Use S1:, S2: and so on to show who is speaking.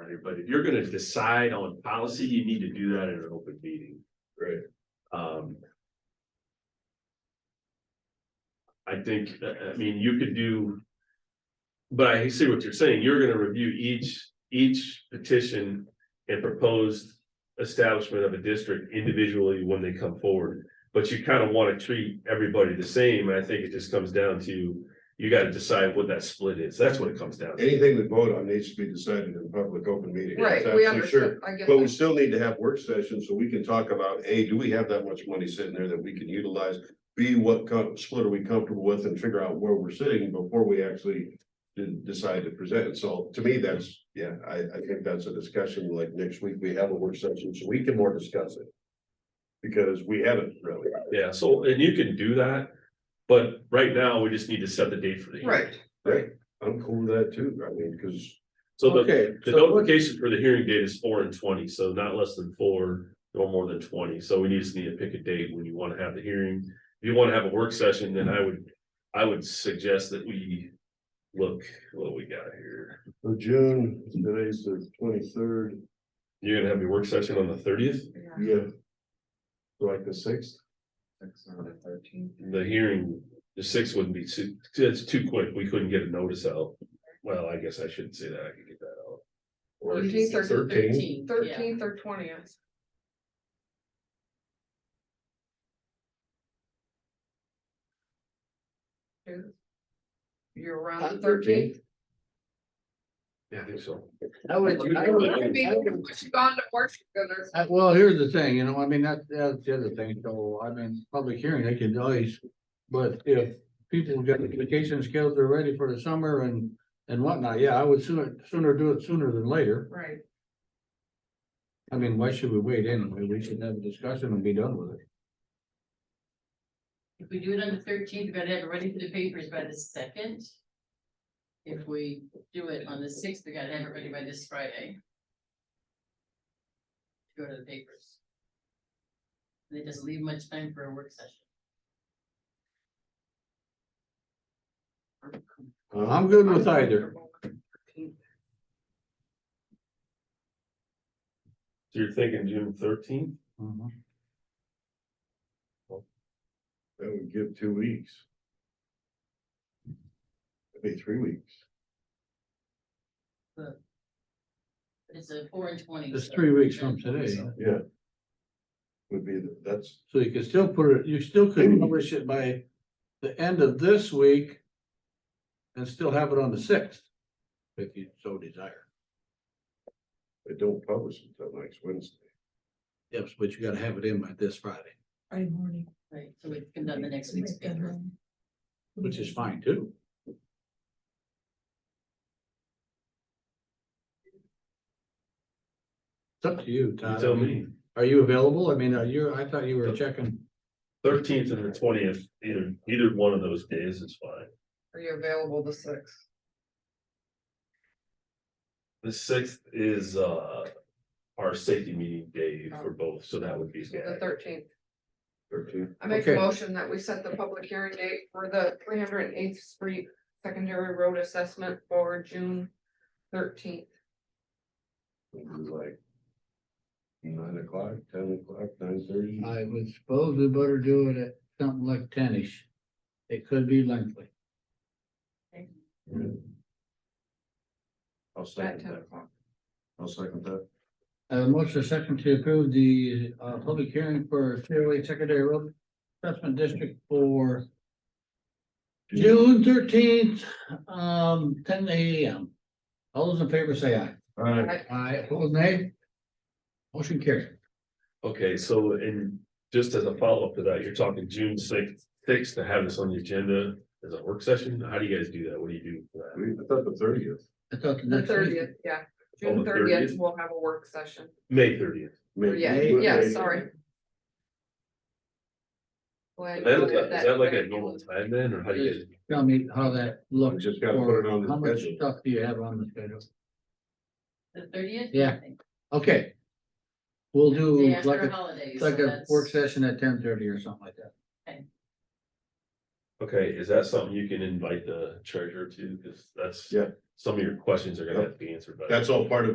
S1: right? But if you're gonna decide on policy, you need to do that in an open meeting.
S2: Right.
S1: Um. I think, I I mean, you could do. But I see what you're saying. You're gonna review each, each petition and proposed establishment of a district individually when they come forward. But you kind of want to treat everybody the same, and I think it just comes down to, you gotta decide what that split is. That's what it comes down to.
S2: Anything we vote on needs to be decided in public open meeting.
S3: Right,
S2: That's
S3: we
S2: absolutely sure.
S3: understand, I get
S2: But we
S3: that,
S2: still need to have work sessions so we can talk about, A, do we have that much money sitting there that we can utilize? B, what co- split are we comfortable with and figure out where we're sitting before we actually de- decide to present it. So to me, that's, yeah, I, I think that's a discussion like next week, we have a work session so we can more discuss it. Because we haven't really.
S1: Yeah, so, and you can do that, but right now, we just need to set the date for the. hearing.
S3: right,
S2: Right, I'm cool with that too, I mean, because.
S1: So the, the
S2: so what-
S1: notification for the hearing date is four and twenty, so not less than four, nor more than twenty, so we just need to pick a date when you wanna have the hearing. If you wanna have a work session, then I would, I would suggest that we look what we got here.
S2: so June, today's the twenty-third,
S1: You're gonna have your work session on the thirtieth,
S3: yeah,
S2: yeah. Like the sixth?
S3: six or the thirteenth.
S1: the hearing, the sixth wouldn't be too, it's too quick, we couldn't get a notice out. Well, I guess I shouldn't say that, I could get that out.
S2: or
S3: Thirteenth or
S2: 13th?
S3: thirteenth, thirteenth or twentieth. You're around the
S4: On
S3: thirteenth.
S4: 13th?
S1: Yeah, I think so.
S4: I would, I would- I would-
S3: Gone to Washington or
S4: I- Uh, well, here's the thing, you know, I mean, that, that's the other thing, so, I mean, public hearing, they can always, but if people get vacation skills, they're ready for the summer and, and whatnot, yeah, I would sooner, sooner do it sooner than later.
S3: Right,
S4: I mean, why should we wait anyway? We should have a discussion and be done with it.
S5: If we do it on the thirteenth, we gotta have it ready for the papers by the second. If we do it on the sixth, we gotta have it ready by this Friday. to Go to the papers. And it doesn't leave much time for a work session.
S4: Uh, I'm good with either.
S1: So you're thinking June thirteenth?
S4: Mhm.
S2: That would give two weeks. Maybe three weeks.
S5: It's a four and twenty.
S4: It's
S5: so-
S4: three weeks from today,
S2: Yeah. Would be, the- that's,
S4: so you could still put it, you still could publish it by the end of this week and still have it on the sixth, if you so desire.
S2: they don't publish until next Wednesday.
S4: Yes, but you gotta have it in by this Friday,
S6: Friday morning.
S5: Right, so we can done the next week's paper.
S4: which is fine too. It's up to you,
S1: You
S4: Todd.
S1: tell me.
S4: Are you available? I mean, are you, I thought you were checking.
S1: Thirteenth and the twentieth, either, either one of those days is fine.
S3: Are you available the sixth?
S1: The sixth is, uh, our safety meeting day for both, so that would be.
S3: Oh. So the thirteenth.
S2: Thirteen,
S3: I make a
S4: Okay.
S3: motion that we set the public hearing date for the three hundred and eighth street secondary road assessment for June thirteenth.
S2: would be like. Nine o'clock, ten o'clock, nine thirty.
S4: I would suppose we better do it at something like ten-ish. It could be lengthy.
S2: I'll
S3: At
S2: second
S3: ten
S2: that,
S3: o'clock.
S2: I'll second that.
S4: Uh, motion second to approve the, uh, public hearing for Clearway Secondary Road Assessment District for June thirteenth, um, ten AM. All those in favor say aye.
S2: All right,
S4: Aye, opposed nay? Motion carried.
S1: Okay, so in, just as a follow-up to that, you're talking June sixth, sixth to have this on the agenda as a work session? How do you guys do that? What do you do for
S2: we, I thought the thirtieth,
S4: I thought the
S3: The
S4: next week.
S3: thirtieth, yeah,
S1: Oh,
S3: June
S1: the
S3: thirtieth,
S1: 30th?
S3: we'll have a work session.
S1: that? May thirtieth.
S3: Or
S2: May-
S3: Yeah,
S2: May-
S3: yeah,
S2: May-
S3: sorry.
S1: Is
S3: Glad you
S1: that-
S3: noted
S1: is that like a
S3: very
S1: normal
S3: well.
S1: time then, or how do you? guys-
S4: Tell me how that
S2: We
S4: looks.
S2: just gotta put it on
S4: How
S2: the
S4: much
S2: schedule.
S4: stuff do you have on the schedule?
S5: The thirtieth?
S4: Yeah. Okay. We'll
S5: Day
S4: do like
S5: after
S4: a,
S5: holidays.
S4: like a work session at ten thirty or something like that.
S1: Okay, is that something you can invite the treasurer to? Cause that's.
S2: Yeah.
S1: Some of your questions are gonna have to be answered by.
S2: That's all part of